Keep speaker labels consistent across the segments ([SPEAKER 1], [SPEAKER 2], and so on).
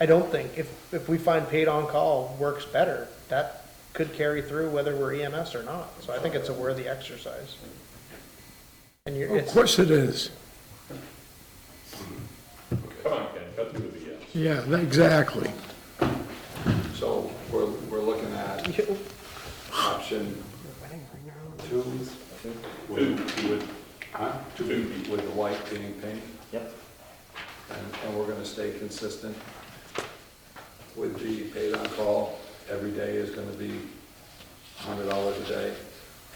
[SPEAKER 1] I don't think, if, if we find paid on-call works better, that could carry through whether we're EMS or not. So I think it's a worthy exercise. And you're,
[SPEAKER 2] Of
[SPEAKER 1] it's,
[SPEAKER 2] course it is.
[SPEAKER 3] Come on, Ken, cut through the BS.
[SPEAKER 2] Yeah, tha- exactly.
[SPEAKER 4] So we're, we're looking at option two, I think,
[SPEAKER 3] Two, you would,
[SPEAKER 4] huh?
[SPEAKER 3] Two.
[SPEAKER 4] With the white being pink,
[SPEAKER 5] Yep.
[SPEAKER 4] and, and we're gonna stay consistent with the paid on call. Every day is gonna be hundred dollars a day,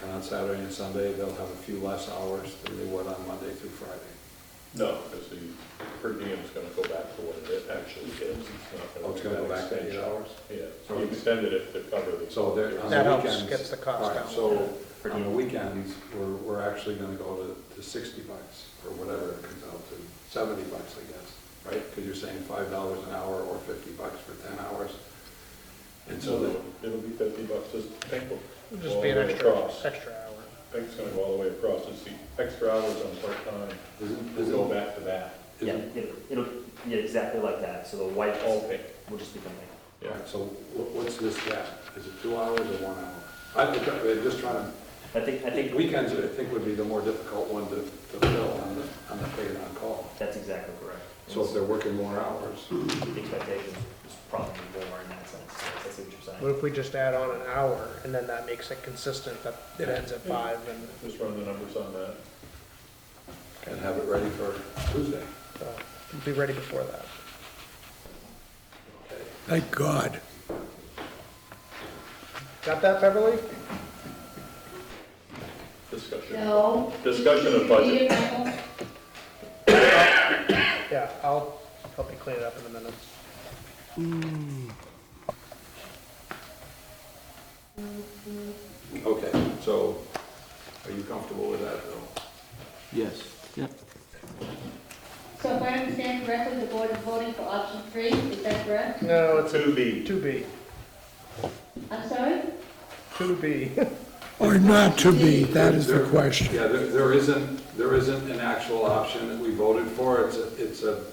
[SPEAKER 4] and on Saturday and Sunday, they'll have a few less hours than they would on Monday through Friday.
[SPEAKER 3] no, because the per diem is going to go back to what it actually is. not
[SPEAKER 4] Oh, it's gonna
[SPEAKER 3] be
[SPEAKER 4] go back
[SPEAKER 3] that
[SPEAKER 4] to eight
[SPEAKER 3] extension.
[SPEAKER 4] hours?
[SPEAKER 3] Yeah, so we extended it to cover the.
[SPEAKER 4] So there, on
[SPEAKER 1] That
[SPEAKER 4] the
[SPEAKER 1] helps,
[SPEAKER 4] weekends.
[SPEAKER 1] gets the cost
[SPEAKER 4] all right,
[SPEAKER 1] down.
[SPEAKER 4] So on the weekends, we're, we're actually gonna go to, to sixty bucks or whatever it comes out to, seventy bucks, I guess, right? Because you're saying five dollars an hour or fifty bucks for ten hours. And so
[SPEAKER 3] So
[SPEAKER 4] that,
[SPEAKER 3] it'll be fifty bucks, just think of.
[SPEAKER 1] just be an
[SPEAKER 3] all the way
[SPEAKER 1] extra,
[SPEAKER 3] across.
[SPEAKER 1] extra hour.
[SPEAKER 3] Pink's gonna go all the way across, it's the extra hours on part-time,
[SPEAKER 4] isn't,
[SPEAKER 3] we'll go
[SPEAKER 4] isn't,
[SPEAKER 3] back to that,
[SPEAKER 5] Yeah,
[SPEAKER 4] isn't,
[SPEAKER 5] it'll, it'll, yeah, exactly like that, so the white
[SPEAKER 3] all pink.
[SPEAKER 5] will just become like.
[SPEAKER 4] all right, so wha- what's this gap? Is it two hours or one hour? I'm just try- I'm just trying
[SPEAKER 5] I think, I
[SPEAKER 4] to,
[SPEAKER 5] think
[SPEAKER 4] weekends, I think would be the more difficult one to, to fill on the, on the paid on call.
[SPEAKER 5] that's exactly correct.
[SPEAKER 4] So if they're working more hours,
[SPEAKER 5] The expectation is probably more in that sense, that's what you're
[SPEAKER 1] But
[SPEAKER 5] saying.
[SPEAKER 1] if we just add on an hour and then that makes it consistent, that it ends at five and,
[SPEAKER 3] Just run the numbers on that.
[SPEAKER 4] and have it ready for Tuesday.
[SPEAKER 1] uh, be ready before that.
[SPEAKER 4] Okay.
[SPEAKER 2] Thank God.
[SPEAKER 1] Got that, Beverly?
[SPEAKER 3] Discussion,
[SPEAKER 6] No.
[SPEAKER 3] Discussion of budget.
[SPEAKER 6] Repeat it, Michael.
[SPEAKER 1] Yeah, I'll help you clean it up in a minute.
[SPEAKER 4] Okay, so are you comfortable with that, though?
[SPEAKER 7] Yes, yep.
[SPEAKER 6] So if I understand correctly, the board is voting for option three, is that correct?
[SPEAKER 1] No, it's
[SPEAKER 3] two B,
[SPEAKER 1] two B,
[SPEAKER 6] I'm sorry?
[SPEAKER 1] two B.
[SPEAKER 2] Or not to be, that is the
[SPEAKER 4] There-
[SPEAKER 2] question.
[SPEAKER 4] Yeah, there, there isn't, there isn't an actual option that we voted for, it's, a- it's a,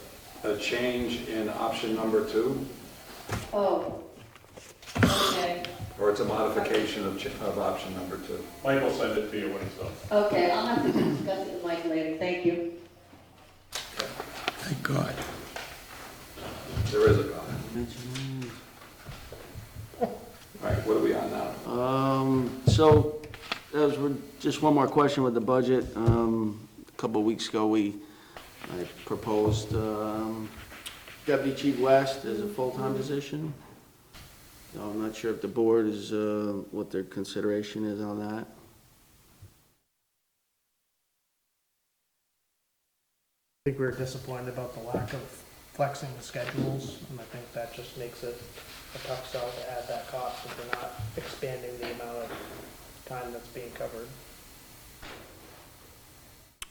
[SPEAKER 4] a change in option number two,
[SPEAKER 6] Oh. Okay,
[SPEAKER 4] or it's a modification of, ch- of option number two.
[SPEAKER 3] Michael sent it to you when it's done.
[SPEAKER 6] okay, I'll have to discuss it with Mike later, thank you.
[SPEAKER 2] Thank God.
[SPEAKER 4] There is a comment. All right, what are we on now?
[SPEAKER 7] Um, so, that was, re- just one more question with the budget. Um, a couple of weeks ago, we, I proposed, um, Deputy Chief West as a full-time position. Now, I'm not sure if the board is, uh, what their consideration is on that.
[SPEAKER 1] I think we were disappointed about the lack of flexing the schedules, and I think that just makes it a tough sell to add that cost if we're not expanding the amount of time that's being covered.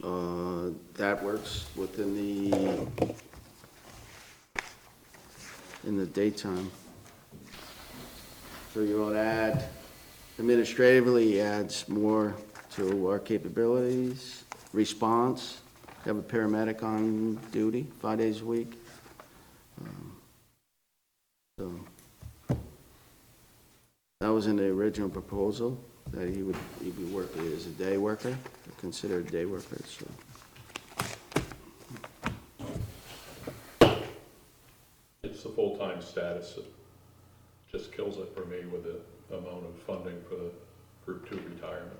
[SPEAKER 7] Uh, that works within the, in the daytime. So you want to add, administratively adds more to our capabilities, response, have a paramedic on duty five days a week. Um, So, that was in the original proposal, that he would, he'd be working as a day worker, considered a day worker, so.
[SPEAKER 3] It's the full-time status that just kills it for me with the amount of funding for the group two retirement.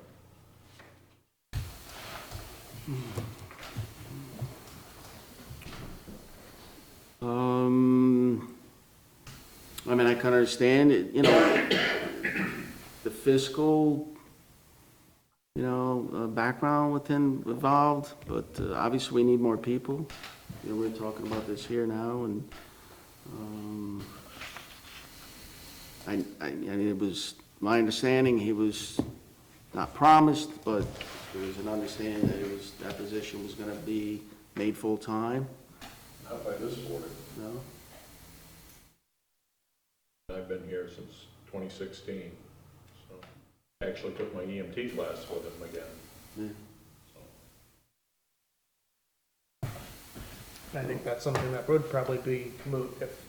[SPEAKER 7] Um, I mean, I can understand it, you know, the fiscal, you know, uh, background within involved, but uh, obviously we need more people. You know, we're talking about this here now and, um, I, I, I mean, it was, my understanding, he was not promised, but there was an understanding that it was, that position was gonna be made full-time,
[SPEAKER 3] Not by this board.
[SPEAKER 7] no?
[SPEAKER 3] I've been here since 2016, so I actually took my EMT class with him again.
[SPEAKER 7] Yeah.
[SPEAKER 1] And I think that's something that would probably be moot if